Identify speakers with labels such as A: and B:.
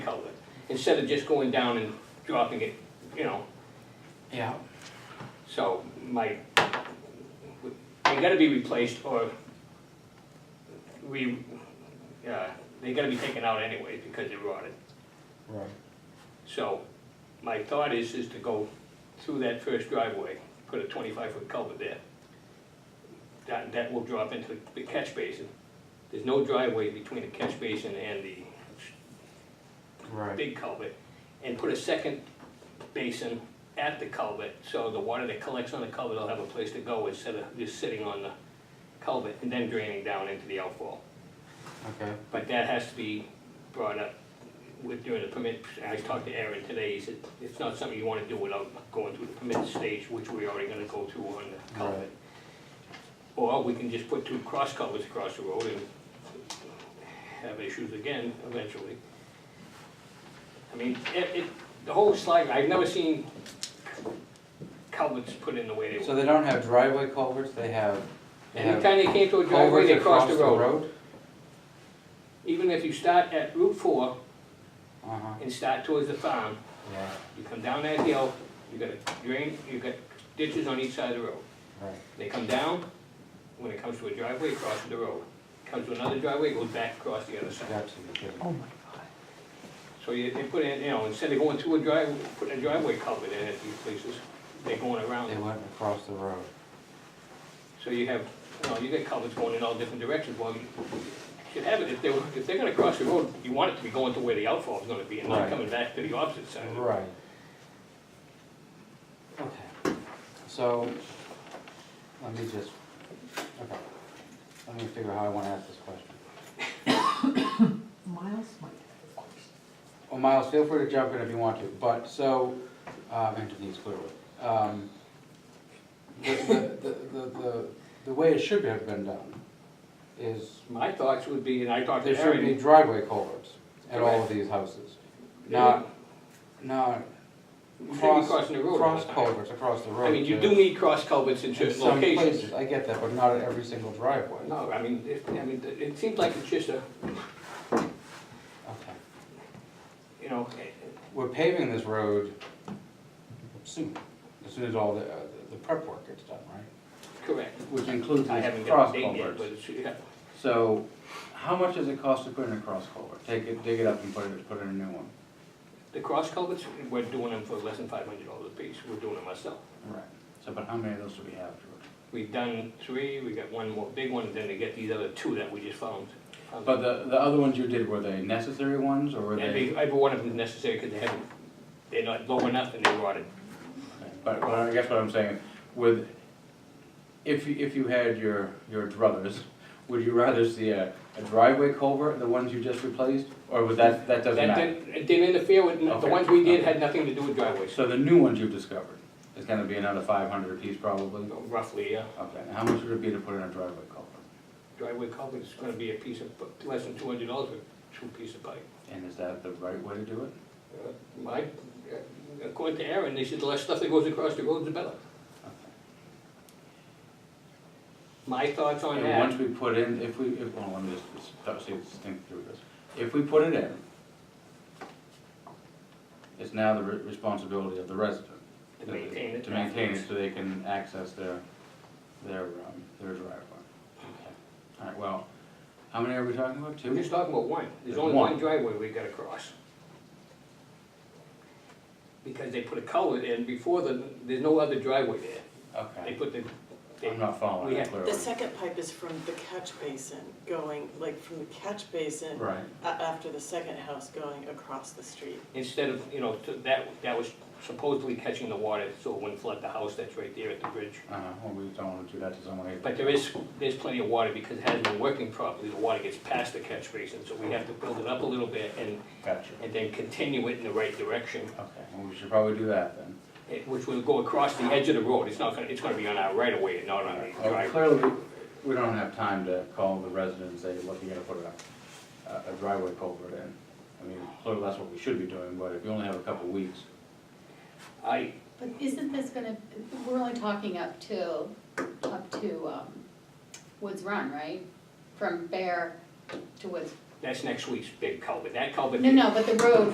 A: instead of just going down and dropping it, you know,
B: Yeah,
A: so my, they gotta be replaced or we, uh, they gotta be taken out anyway because they're rotted.
B: right.
A: So my thought is, is to go through that first driveway, put a twenty-five foot culvert there. That, that will drop into the catch basin. There's no driveway between the catch basin and the
B: Right,
A: big culvert. And put a second basin at the culvert, so the water that collects on the culvert will have a place to go instead of just sitting on the culvert and then draining down into the outfall.
B: okay,
A: But that has to be brought up with, during the permit, I talked to Aaron today, he said, it's not something you wanna do without going through the permit stage, which we're already gonna go through on the culvert.
B: Right.
A: Or we can just put two cross culverts across the road and have issues again eventually. I mean, it, it, the whole slide, I've never seen culverts put in the way they
B: so
A: were.
B: they don't have driveway culverts, they have, they have
A: Anytime they came to a driveway,
B: culverts
A: they
B: across
A: crossed the road. Even if you start at Route four
B: Uh-huh,
A: and start towards the farm,
B: yeah,
A: You come down that hill, you got a drain, you got ditches on each side of the road.
B: right,
A: They come down, when it comes to a driveway, across the road. Comes to another driveway, goes back across the other side.
B: got you, you're kidding.
C: Oh my God.
A: So you, they put in, you know, instead of going through a driveway, putting a driveway culvert in at these places, they're going around.
B: They went across the road,
A: So you have, you know, you get culverts going in all different directions, well, you should have it, if they, were- if they're gonna cross the road, you want it to be going to where the outfall's gonna be and not
B: Right.
A: coming back to the opposite side. of the road.
B: right. Okay, so, let me just, okay, let me figure out how I wanna ask this question.
C: Miles might have a question.
B: Well, Miles, feel free to jump in if you want to, but so, um, and Denise clearly. um, The, the, the, the, the way it should have been done is
A: My thoughts would be, and I talked
B: there
A: to
B: should be
A: Aaron.
B: driveway culverts at all of these houses. Not, not
A: You should be
B: cross,
A: crossing the road. all the
B: cross
A: time.
B: culverts across the road.
A: I mean, you
B: to-
A: do need cross culverts in
B: in
A: certain
B: some
A: locations.
B: places, I get that, but not at every single driveway.
A: No, I mean, it, I mean, it- it seems like it's just a,
B: Okay.
A: you know, eh,
B: We're paving this road soon, as soon as all the, uh, the prep work gets done, right?
A: correct.
B: Which includes
A: I
B: these
A: haven't got
B: cross
A: a date yet,
B: culverts.
A: but it's, yeah,
B: So, how much does it cost to put in a cross culvert? Take it, dig it up and put it, put in a new one?
A: the cross culverts, we're doing them for less than five hundred dollars a piece. We're doing them ourselves.
B: Right. So, but how many of those do we have, George?
A: We've done three, we got one more big one, and then they get these other two that we just found.
B: But the, the other ones you did, were they necessary ones, or were
A: And
B: they?
A: they- every one of them is necessary because they haven't, they're not low enough and they're rotted.
D: But, but I guess what I'm saying, with, if, you- if you had your, your druthers, would you rather see a, a driveway culvert, the ones you just replaced, or would that, that doesn't
A: That
D: matter?
A: didn't, it didn't interfere with, the
D: Okay,
A: ones we did
D: okay.
A: had nothing to do with driveways,
D: So the new ones you've discovered, is gonna be another five hundred apiece probably?
A: roughly, yeah.
D: Okay, and how much would it be to put in a driveway culvert?
A: driveway culvert is gonna be a piece of, less than two hundred dollars for two piece of pipe.
D: And is that the right way to do it?
A: Uh, My, according to Aaron, they said the less stuff that goes across the road, the better. My thoughts on
D: And once
A: that,
D: we put in, if we, if, well, let me just, stop, see, just think through this. If we put it in, it's now the re- responsibility of the resident.
A: to maintain it.
D: To maintain it so they can access their, their, um, their driveway. All right, well, how many are we talking about,
A: We're
D: two?
A: just talking about one, there's only
D: One.
A: one driveway we gotta cross. Because they put a culvert in before the, there's no other driveway there, they
D: Okay,
A: put the,
D: I'm not following
A: we
D: that
A: have-
D: clearly.
E: The second pipe is from the catch basin, going, like, from the catch basin
D: Right,
E: a- after the second house going across the street.
A: instead of, you know, to- that, that was supposedly catching the water, so it wouldn't flood the house that's right there at the bridge.
D: uh, well, we don't wanna do that to someone.
A: But there is, there's plenty of water because it hasn't been working properly, the water gets past the catch basin, so we have to build it up a little bit and,
D: Gotcha,
A: and then continue it in the right direction,
D: okay, well, we should probably do that then.
A: eh, which will go across the edge of the road, it's not gonna, it's gonna be on our right of way and not on the
D: Well,
A: driveway.
D: Oh, Clearly, we- we don't have time to call the residents, say, look, you gotta put a- a, a driveway culvert in. I mean, clearly that's what we should be doing, but if you only have a couple weeks,
A: I,
F: But isn't this gonna, we're only talking up to, up to um, Woods Run, right? From Bear to Woods,
A: that's next week's big culvert, that culvert.
F: no, no, but the road